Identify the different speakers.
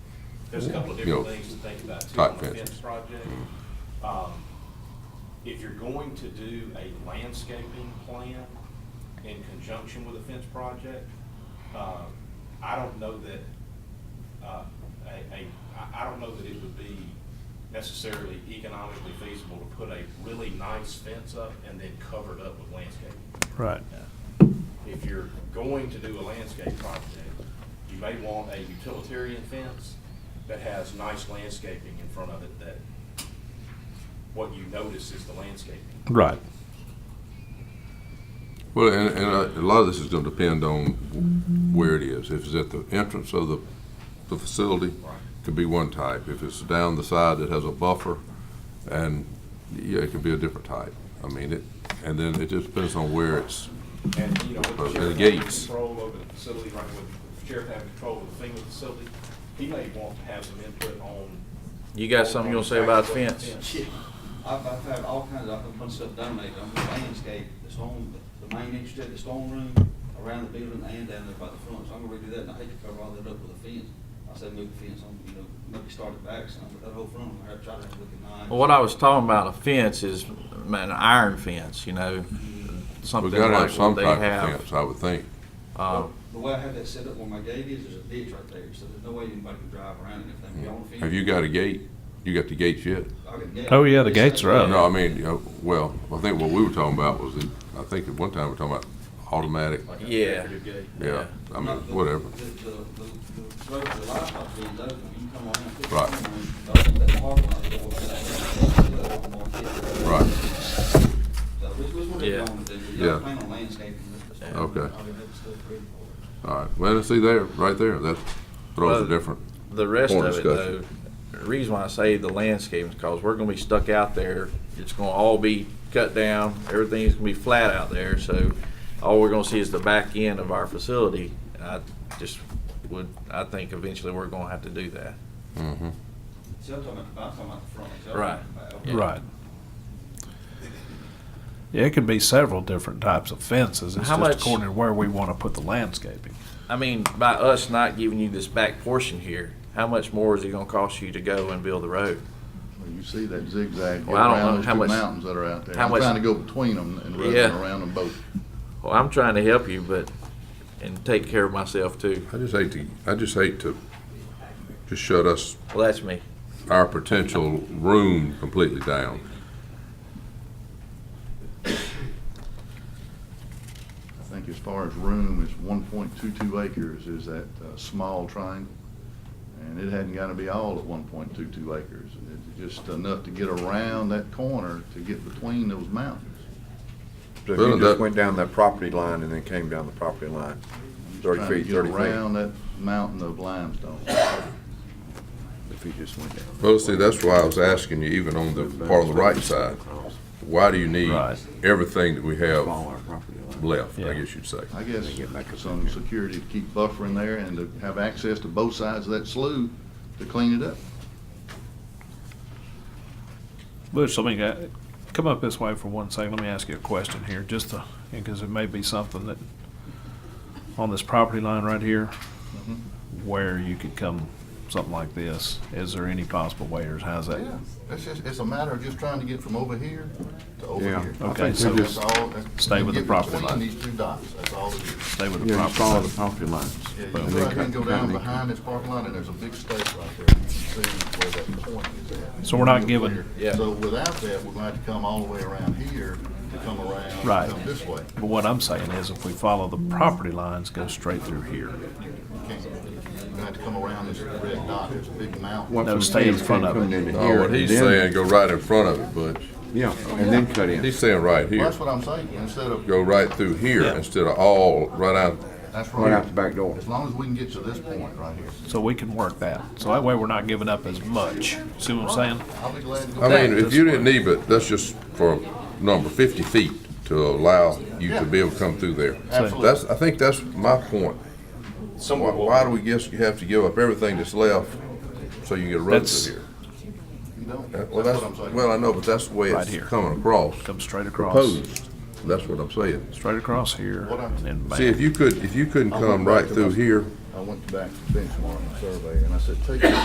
Speaker 1: There's a couple of
Speaker 2: Yo.
Speaker 1: different things to think about too
Speaker 2: Tight
Speaker 1: on a
Speaker 2: fence.
Speaker 1: fence project. Um, If you're going to do a landscaping plan in conjunction with a fence project, uh, I don't know that, uh, a- a- I I don't know that it would be necessarily economically feasible to put a really nice fence up and then cover it up with landscaping
Speaker 3: Right.
Speaker 1: if you're going to do a landscape project, you may want a utilitarian fence that has nice landscaping in front of it that what you notice is the landscaping.
Speaker 3: Right.
Speaker 2: Well, and, and a a lot of this is gonna depend on where it is. If it's at the entrance of the, the facility,
Speaker 1: Right.
Speaker 2: could be one type. If it's down the side that has a buffer, and, yeah, it could be a different type. I mean, it, and then it just depends on where it's,
Speaker 1: And, you know,
Speaker 2: Uh,
Speaker 1: with the sheriff having
Speaker 2: gates.
Speaker 1: control over the facility, right, with the sheriff having control of the FEMA facility, he may want to have some input on.
Speaker 4: You got something you want to say about the
Speaker 1: on
Speaker 4: fence?
Speaker 5: Yeah, I've, I've had all kinds of, I've done stuff done lately, I'm gonna landscape, the stone, the main entrance to the stone room, around the building and down there by the front, so I'm gonna redo that, and I hate to cover all that up with a fence. I said move the fence, on, you know, maybe start it back some, but that whole front, I'm gonna try to look at nine.
Speaker 4: Well, what I uh, was talking about, a fence is man, an iron fence, you know,
Speaker 2: we
Speaker 4: something
Speaker 2: gotta
Speaker 4: like
Speaker 2: have some
Speaker 4: what they
Speaker 2: type of
Speaker 4: have.
Speaker 2: fence, I would think.
Speaker 4: uh,
Speaker 5: The way I had that set up where my gate is, there's a ditch right there, so there's no way anybody can drive around it if they don't fence.
Speaker 2: Have you got a gate? You got the gates yet?
Speaker 5: I got a gate.
Speaker 3: Oh, yeah, the gates are up.
Speaker 2: No, I mean, you know, well, I think what we were talking about was, the- I think at one time we were talking about automatic,
Speaker 1: Like a
Speaker 4: Yeah.
Speaker 1: decorative gate.
Speaker 2: yeah, I mean,
Speaker 5: Not the-
Speaker 2: whatever.
Speaker 5: The, the, the, the road to the livestock being open, you can come on and pick
Speaker 2: Right.
Speaker 5: up on that parking lot door, that market.
Speaker 2: Right.
Speaker 5: So, which, which one are you
Speaker 4: Yeah.
Speaker 5: going to do? You don't
Speaker 2: Yeah.
Speaker 5: plan on landscaping this, this.
Speaker 2: Okay.
Speaker 5: I'll get that stuff ready for it.
Speaker 2: All right, well, let's see there, right there, that throws
Speaker 4: Well,
Speaker 2: a different,
Speaker 4: The rest
Speaker 2: Point
Speaker 4: of it, though,
Speaker 2: discussion.
Speaker 4: the reason why I say the landscaping is because we're going to be stuck out there. It's going to all be cut down. Everything's going to be flat out there. So all we're going to see is the back end of our facility. And I just would, I think eventually we're going to have to do that.
Speaker 2: mhm.
Speaker 5: So I'm talking about, I'm talking about the front. so I'm
Speaker 4: Right.
Speaker 5: talking about-
Speaker 3: Right. Yeah, it could be several different types of fences. It's
Speaker 4: How
Speaker 3: just
Speaker 4: much-
Speaker 3: according to where we want to put the landscaping.
Speaker 4: I mean, by us not giving you this back portion here, how much more is it going to cost you to go and build the road?
Speaker 6: Well, You see that zigzag
Speaker 4: Well, I don't know
Speaker 6: around those
Speaker 4: how
Speaker 6: two
Speaker 4: much-
Speaker 6: mountains that are out there.
Speaker 4: how
Speaker 6: I'm
Speaker 4: much-
Speaker 6: trying to go between them and run
Speaker 4: Yeah.
Speaker 6: around them both.
Speaker 4: Well, I'm trying to help you, but, and take care of myself too.
Speaker 2: I just hate to, I just hate to just shut us,
Speaker 4: Well, that's me.
Speaker 2: our potential room completely down.
Speaker 6: I think as far as room, it's one point two two acres is that uh, small triangle. And it hadn't gotta be all at one point two two acres. It's just enough to get around that corner to get between those mountains.
Speaker 7: So if
Speaker 2: Well,
Speaker 7: you just
Speaker 2: that-
Speaker 7: went down that property line and then came down the property line, thirty
Speaker 6: Trying to
Speaker 7: feet, thirty
Speaker 6: Get
Speaker 7: feet.
Speaker 6: around that mountain of limestone.
Speaker 7: If you just went down.
Speaker 2: Well, see, that's why I was asking you, even on the part of the right side, why do you need
Speaker 3: Right.
Speaker 2: everything that we have
Speaker 7: Smaller property line.
Speaker 2: left,
Speaker 3: Yeah.
Speaker 2: I guess you'd say?
Speaker 6: I guess
Speaker 7: They get back up
Speaker 6: some
Speaker 7: here.
Speaker 6: security to keep buffering there and to have access to both sides of that slough to clean it up.
Speaker 3: Bush, let me, uh, come up this way for one second. Let me ask you a question here, just to, because it may be something that, on this property line right here, where you could come, something like this, is there any possible way, or how's that?
Speaker 6: Yeah, it's just, it's a matter of just trying to get from over here to over
Speaker 7: Yeah.
Speaker 6: here.
Speaker 3: Okay,
Speaker 6: I think
Speaker 3: so
Speaker 6: that's all- that's-
Speaker 3: stay with the
Speaker 6: get
Speaker 3: property
Speaker 6: between
Speaker 3: line.
Speaker 6: these two dots, that's all it is.
Speaker 3: Stay with the
Speaker 7: Yeah, you
Speaker 3: property.
Speaker 7: follow
Speaker 3: line.
Speaker 7: the property lines.
Speaker 6: Yeah, you
Speaker 7: and
Speaker 6: go
Speaker 7: then
Speaker 6: out here and go
Speaker 7: cut-
Speaker 6: down
Speaker 7: cut-
Speaker 6: behind this parking lot, and there's a big space right there, you can see where that point is at.
Speaker 3: So we're not
Speaker 6: Real
Speaker 3: giving-
Speaker 6: clear.
Speaker 4: Yeah.
Speaker 6: So without that, we're going to have to come all the way around here to come around, and
Speaker 3: Right.
Speaker 6: come this way.
Speaker 3: But what I'm saying is, if we follow the property lines, go straight through here.
Speaker 6: Can't- We're going to have to come around this red dot, there's a big mountain.
Speaker 7: Once
Speaker 3: No,
Speaker 7: the
Speaker 3: stay in
Speaker 7: fence
Speaker 3: front
Speaker 7: came
Speaker 3: of it.
Speaker 7: coming into
Speaker 2: No,
Speaker 7: here
Speaker 2: Oh, what
Speaker 7: and
Speaker 2: he's
Speaker 7: then-
Speaker 2: saying, go right in front of it, Butch.
Speaker 7: Yeah, and then cut in.
Speaker 2: He's saying right
Speaker 6: Well,
Speaker 2: here,
Speaker 6: That's what I'm saying, instead of,
Speaker 2: go right through here
Speaker 3: Yeah.
Speaker 2: instead of all right out.
Speaker 6: that's
Speaker 7: Right out the
Speaker 6: right,
Speaker 7: back door.
Speaker 6: as long as we can get to this point right here.
Speaker 3: So we can work that. So that way we're not giving up as much. See what I'm saying?
Speaker 6: I'll be glad to go.
Speaker 2: I mean, if you didn't need, but that's just for number fifty feet to allow you to be able to come through there.
Speaker 6: Absolutely.
Speaker 2: That's, I think that's my point. Why,
Speaker 1: Somewhat what
Speaker 2: why do we guess you have to give up everything that's left so you get a road
Speaker 3: That's-
Speaker 2: through here?
Speaker 6: You don't.
Speaker 2: That- Well, that's,
Speaker 6: what I'm saying.
Speaker 2: well, I know, but that's the way
Speaker 3: Right here.
Speaker 2: it's coming across,
Speaker 3: Come straight across,
Speaker 2: proposed. That's what I'm saying.
Speaker 3: straight across here, and then
Speaker 2: See,
Speaker 3: bam.
Speaker 2: if you could, if you couldn't come right through here,
Speaker 6: I went back to benchmark and survey, and I said, take this